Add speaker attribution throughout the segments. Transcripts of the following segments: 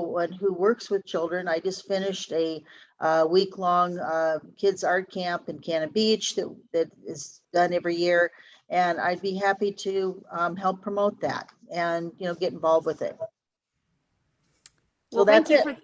Speaker 1: one who works with children. I just finished a uh, week-long uh, kids art camp in Cannon Beach that that is done every year. And I'd be happy to um, help promote that and, you know, get involved with it. So
Speaker 2: Well, thank
Speaker 1: that's
Speaker 2: you for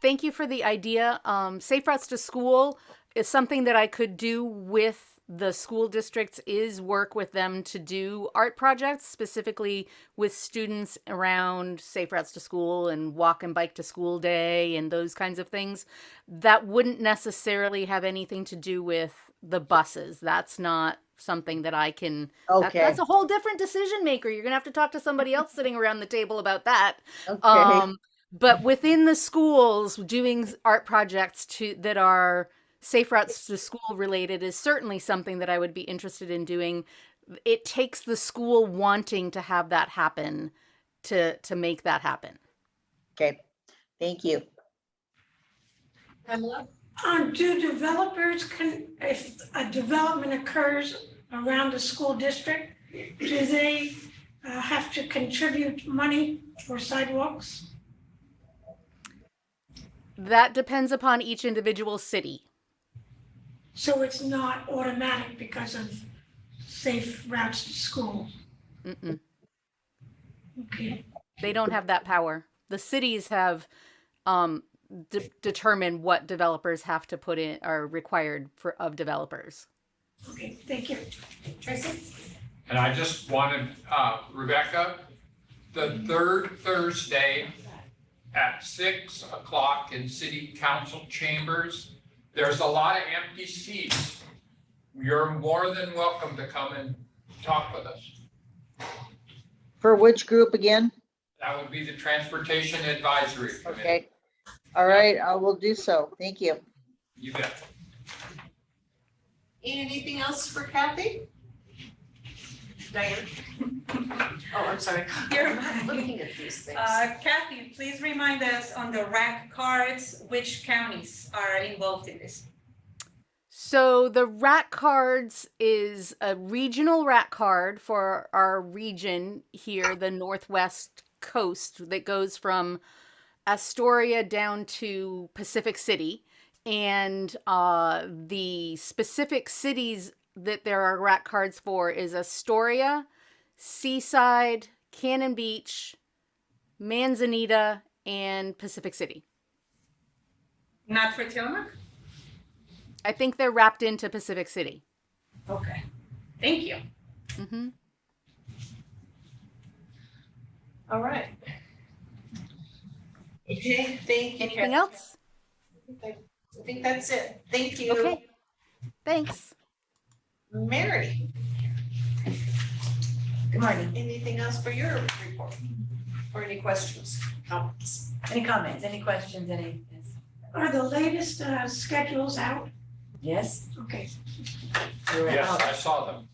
Speaker 2: thank you for the idea. Um, Safe routes to school is something that I could do with the school districts. Is work with them to do art projects specifically with students around safe routes to school and walk and bike to school day and those kinds of things. That wouldn't necessarily have anything to do with the buses. That's not something that I can. that-
Speaker 1: Okay,
Speaker 2: that's a whole different decision maker. You're gonna have to talk to somebody else sitting around the table about that
Speaker 1: okay.
Speaker 2: um but within the schools doing s- art projects to that are safe routes to school related is certainly something that i would be interested in doing it takes the school wanting to have that happen to to make that happen
Speaker 1: Okay,
Speaker 2: um,
Speaker 1: thank you.
Speaker 3: Pamela? Um, do developers can, if a development occurs around the school district, do they uh, have to contribute money for sidewalks?
Speaker 2: that depends upon each individual city
Speaker 3: So it's not automatic because of safe routes to school,
Speaker 2: Mm-mm.
Speaker 3: okay?
Speaker 2: they don't have that power the cities have um de- determine what developers have to put in are required for of developers
Speaker 3: Okay, thank you. Tracy?
Speaker 4: And I just wanted, uh, Rebecca, the third Thursday at six o'clock in city council chambers, there's a lot of empty seats. You're more than welcome to come and talk with us.
Speaker 1: For which group again?
Speaker 4: That would be the Transportation Advisory Committee.
Speaker 1: Okay, all right, I will do so. Thank you.
Speaker 4: You bet.
Speaker 5: Anything else for Kathy? Diane? Oh, I'm sorry.
Speaker 6: You're
Speaker 5: I'm
Speaker 6: right.
Speaker 5: looking at these things.
Speaker 6: Uh, Kathy, please remind us on the rack cards, which counties are involved in this?
Speaker 2: So the rat cards is a regional rat card for our region here, the northwest coast that goes from Astoria down to Pacific City. And uh, the specific cities that there are rat cards for is Astoria, Seaside, Cannon Beach, Manzanita, and Pacific City.
Speaker 6: Not for Tillamook?
Speaker 2: I think they're wrapped into Pacific City.
Speaker 6: Okay, thank you.
Speaker 2: hmm
Speaker 5: All right. Okay, thank you,
Speaker 2: Anything
Speaker 5: Kathy.
Speaker 2: else?
Speaker 5: I think that's it. Thank you.
Speaker 2: Okay, thanks.
Speaker 5: Mary? Good morning. Anything else for your report? Or any questions, comments?
Speaker 7: Any comments, any questions, any?
Speaker 3: Are the latest uh, schedules out?
Speaker 7: Yes?
Speaker 3: Okay,
Speaker 7: They were
Speaker 4: Yes,
Speaker 7: out,
Speaker 4: I saw them.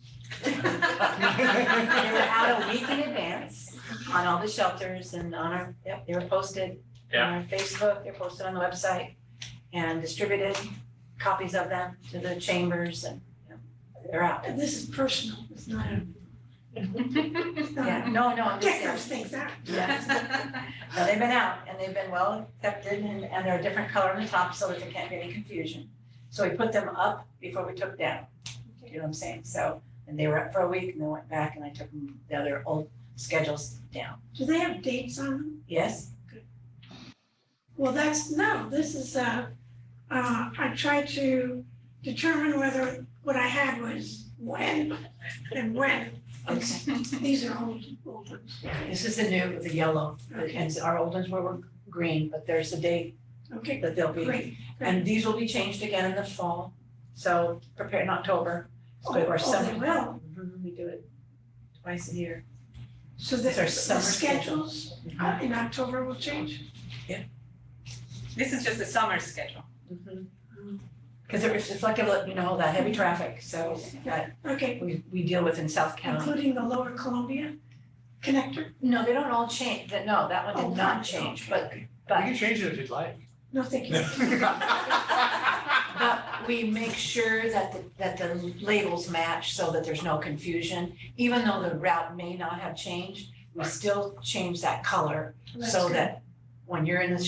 Speaker 7: they were out a week in advance on all the shelters and on our, yep, they were posted on our Facebook, they're posted on the website and distributed copies of them to the chambers and, you know, they're out.
Speaker 3: and this is personal, it's not a. it's not a-
Speaker 7: Yeah, no, no, I'm just
Speaker 3: Check those
Speaker 7: saying,
Speaker 3: things out.
Speaker 7: yeah, no, they've been out and they've been well accepted and, and they're a different color on the top so that there can't be any confusion. So we put them up before we took down. You know what I'm saying? So, and they were up for a week and then went back and I took them, the other old schedules down.
Speaker 3: Do they have dates on them?
Speaker 7: Yes?
Speaker 3: Well, that's, no, this is, uh, uh, I tried to determine whether what I had was when and when. It's- These are old, old ones.
Speaker 7: This is the new, the yellow, and our old ones were, were green, but there's a date
Speaker 3: Okay,
Speaker 7: that they'll be.
Speaker 3: great.
Speaker 7: And these will be changed again in the fall, so prepare in October, so
Speaker 3: Oh,
Speaker 7: our
Speaker 3: oh,
Speaker 7: summer.
Speaker 3: they will.
Speaker 7: Mhm, We do it twice a year.
Speaker 3: So the,
Speaker 7: It's our
Speaker 3: the
Speaker 7: summer schedule.
Speaker 3: schedules uh, in October will change?
Speaker 6: This is just the summer schedule.
Speaker 7: Mm-hmm. Because it's, it's like, a lot, you know, that heavy traffic, so that
Speaker 3: Okay,
Speaker 7: we, we deal with in South County.
Speaker 3: including the Lower Columbia connector?
Speaker 7: No, they don't all change, that, no, that one
Speaker 3: Oh,
Speaker 7: did not
Speaker 3: okay,
Speaker 7: change,
Speaker 3: okay,
Speaker 7: but,
Speaker 3: okay.
Speaker 7: but,
Speaker 4: change it if you'd like.
Speaker 3: No, thank you.
Speaker 7: but we make sure that, the- that the labels match so that there's no confusion. Even though the route may not have changed, we still change that color
Speaker 3: That's
Speaker 7: so
Speaker 3: good.
Speaker 7: that
Speaker 5: when you're in the